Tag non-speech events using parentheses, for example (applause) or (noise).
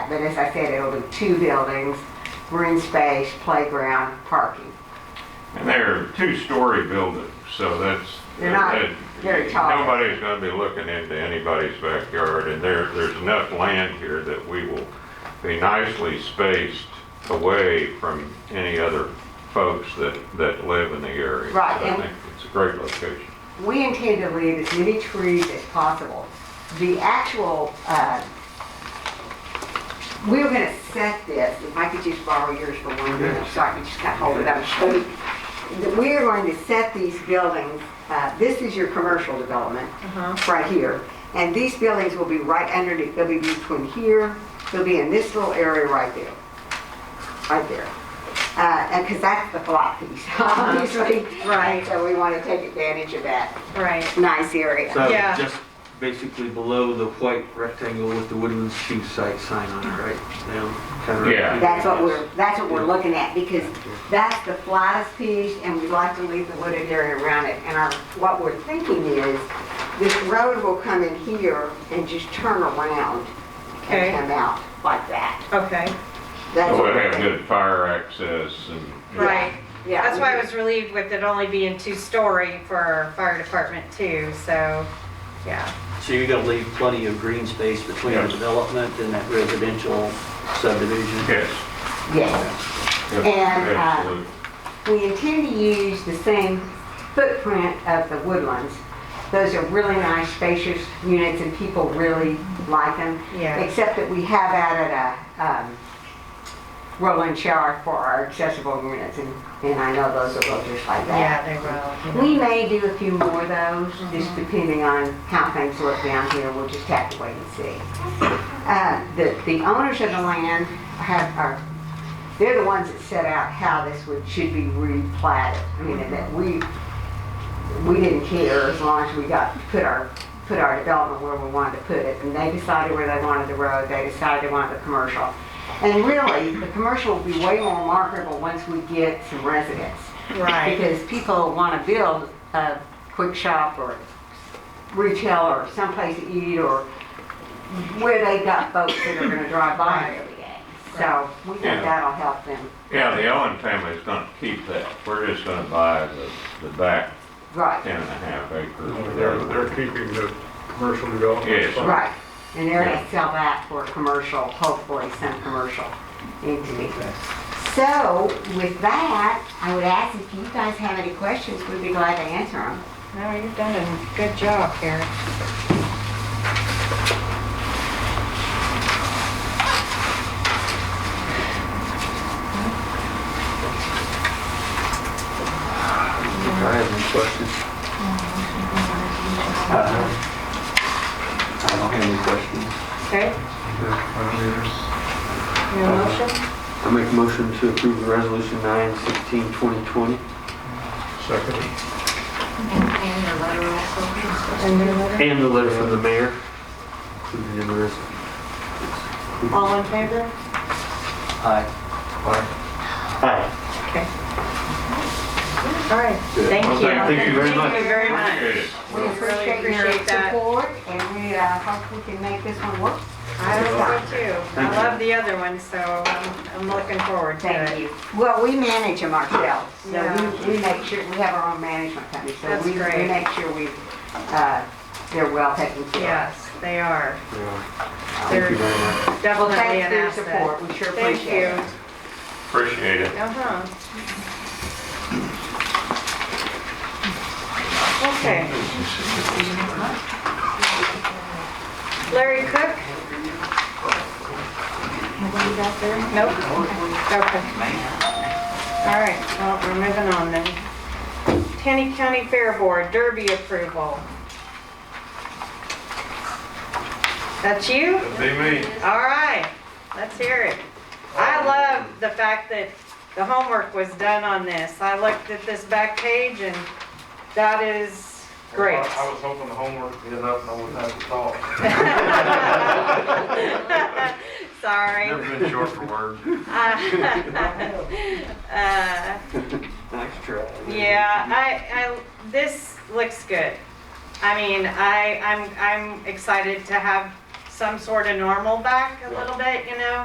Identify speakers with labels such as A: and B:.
A: but as I said, it'll be two buildings, green space, playground, parking.
B: And they're two-story buildings, so that's.
A: They're not
B: that-
A: very tall.
B: Nobody's gonna be looking into anybody's backyard, and there, there's enough land here that we will be nicely spaced away from any other folks that, that live in the area.
A: Right,
B: So I
A: and-
B: think it's a great location.
A: We intend to leave as many trees as possible. The actual, uh, we were gonna set this, if I could just borrow yours for one minute, so I can just kind of hold it up and show you. That We are going to set these buildings, uh, this is your commercial development, right here. And these buildings will be right underneath, they'll be between here, they'll be in this little area right there. Right there. Uh, and, cause that's the flat piece, (laughs) obviously.
C: Right.
A: So we wanna take advantage of that
C: Right.
A: nice area.
D: So
C: Yeah.
D: just basically below the white rectangle with the Woodlands Shoe Site sign on it, right? Now, kind of right
B: Yeah.
D: here.
A: That's what we're, that's what we're looking at, because that's the flattest piece, and we like to leave the wooded area around it. And our, what we're thinking is, this road will come in here and just turn around
C: Okay.
A: and come out like that.
C: Okay.
A: That's
B: So
A: what
B: it
A: we're
B: have
A: thinking.
B: Oh, good fire access and.
C: Right.
A: Yeah.
C: That's why I was relieved with it only being two-story for our fire department too, so, yeah.
E: So you're gonna leave plenty of green space between the
B: Yes.
E: development and that residential subdivision?
B: Yes.
A: Yes.
B: yes,
A: And, uh,
B: absolutely.
A: We intend to use the same footprint of the woodlands. Those are really nice spacious units and people really like them.
C: Yeah.
A: Except that we have added a um, roll-in shower for our accessible units and, and I know those will look just like that.
C: Yeah, they will.
A: We may do a few more of those, just depending on how things look down here. We'll just have to wait and see. Uh, The, the owners of the land have, are, they're the ones that set out how this would, should be replatted. I mean, and that we, we didn't care as long as we got, put our, put our development where we wanted to put it. And they decided where they wanted the road, they decided they wanted the commercial. And really, the commercial will be way more marketable once we get some residents.
C: Right.
A: Because people want to build a quick shop or retail or someplace to eat or where they got folks that are going to drive by every day. So we think
B: Yeah.
A: that'll help them.
B: Yeah, the Owen family's gonna keep that. We're just gonna buy the, the back
A: Right,
B: ten and a half acres. or
F: They're,
B: whatever.
F: they're keeping the commercial development.
B: Yes.
F: fund.
A: right. And they're going to sell that for commercial, hopefully some commercial into it. So with that, I would ask if you guys have any questions, we'd be glad to answer them.
C: No, you've done a good job, Karen.
D: I have any questions? Uh, Uh-huh. I don't have any questions.
C: Okay, your motion?
D: I make a motion to approve resolution 9, 16, 2020.
F: Second.
C: And your letter?
D: And the letter from the mayor. Included in the res-
C: All in favor?
E: Aye.
D: Aye.
C: Okay. All right,
D: Good.
C: thank
B: Well,
C: you.
D: thank you very much.
C: Thank you very much.
B: Appreciate it.
A: We
C: Really
A: appreciate your
C: appreciate that.
A: support and we uh, hope we can make this one work.
C: I hope so too.
D: Thank
C: I
D: you.
C: love the other one, so I'm, I'm looking forward to it.
A: Thank you. Well, we manage them ourselves, so
C: Yeah.
A: we, we make sure, we have our own management company, so
C: That's
A: we, we
C: great.
A: make sure we, uh, they're well taken care
C: Yes, they are.
D: Yeah. Thank
C: They're
D: you very much.
A: of.
C: definitely
A: Thanks
C: an
A: for your
C: asset.
A: support, we sure
C: Thank
A: appreciate
C: you.
A: it.
B: Appreciate it.
C: Uh-huh. Okay. Larry Cook? Nope. Okay. All right, well, we're moving on then. Tanny County Fair Board Derby approval. That's you?
B: Be me.
C: All right, let's hear it. I love the fact that the homework was done on this. I looked at this back page and that is great.
G: Well, I I was hoping the homework would be enough and I wouldn't have to talk.
C: (laughs) Sorry.
B: Never been short for words.
C: Uh,
D: Nice try.
C: Yeah, I, I, this looks good. I mean, I, I'm, I'm excited to have some sort of normal back a little bit, you know?